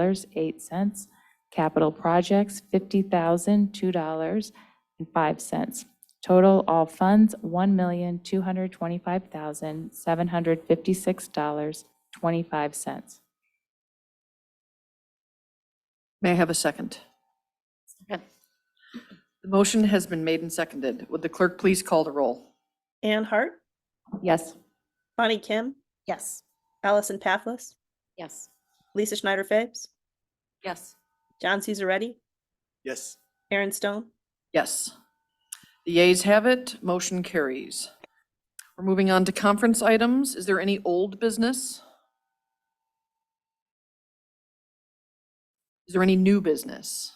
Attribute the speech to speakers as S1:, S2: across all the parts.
S1: dollars eight cents. Capital projects, fifty thousand two dollars and five cents. Total all funds, one million two hundred twenty-five thousand seven hundred fifty-six dollars twenty-five cents.
S2: May I have a second?
S3: Second.
S2: The motion has been made and seconded. Would the clerk please call the roll?
S4: Anne Hart,
S1: Yes.
S4: Bonnie Kim,
S3: Yes.
S4: Allison Pathless,
S3: Yes.
S4: Lisa Schneider Fabes,
S3: Yes.
S4: John Cesaretti,
S5: Yes.
S4: Aaron Stone,
S2: Yes. The ayes have it, motion carries. We're moving on to conference items. Is there any old business? Is there any new business?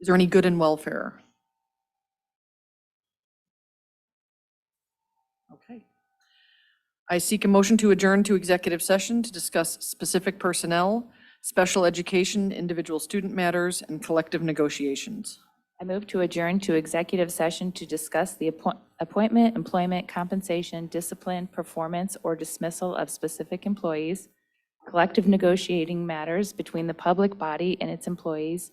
S2: Is there any good in welfare? Okay. I seek a motion to adjourn to executive session to discuss specific personnel, special education, individual student matters, and collective negotiations.
S1: I move to adjourn to executive session to discuss the appoint- appointment, employment, compensation, discipline, performance, or dismissal of specific employees, collective negotiating matters between the public body and its employees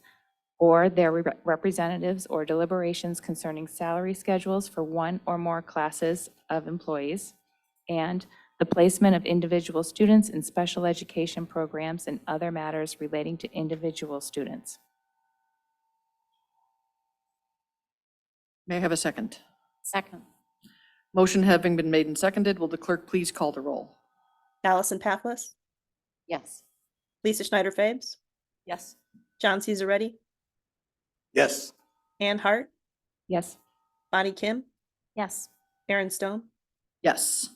S1: or their re- representatives or deliberations concerning salary schedules for one or more classes of employees, and the placement of individual students in special education programs and other matters relating to individual students.
S2: May I have a second?
S3: Second.
S2: Motion having been made and seconded, will the clerk please call the roll?
S4: Allison Pathless,
S3: Yes.
S4: Lisa Schneider Fabes,
S3: Yes.
S4: John Cesaretti,
S5: Yes.
S4: Anne Hart,
S1: Yes.
S4: Bonnie Kim,
S3: Yes.
S4: Aaron Stone.
S2: Yes.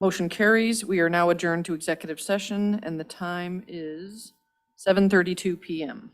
S2: Motion carries. We are now adjourned to executive session, and the time is 7:32 PM.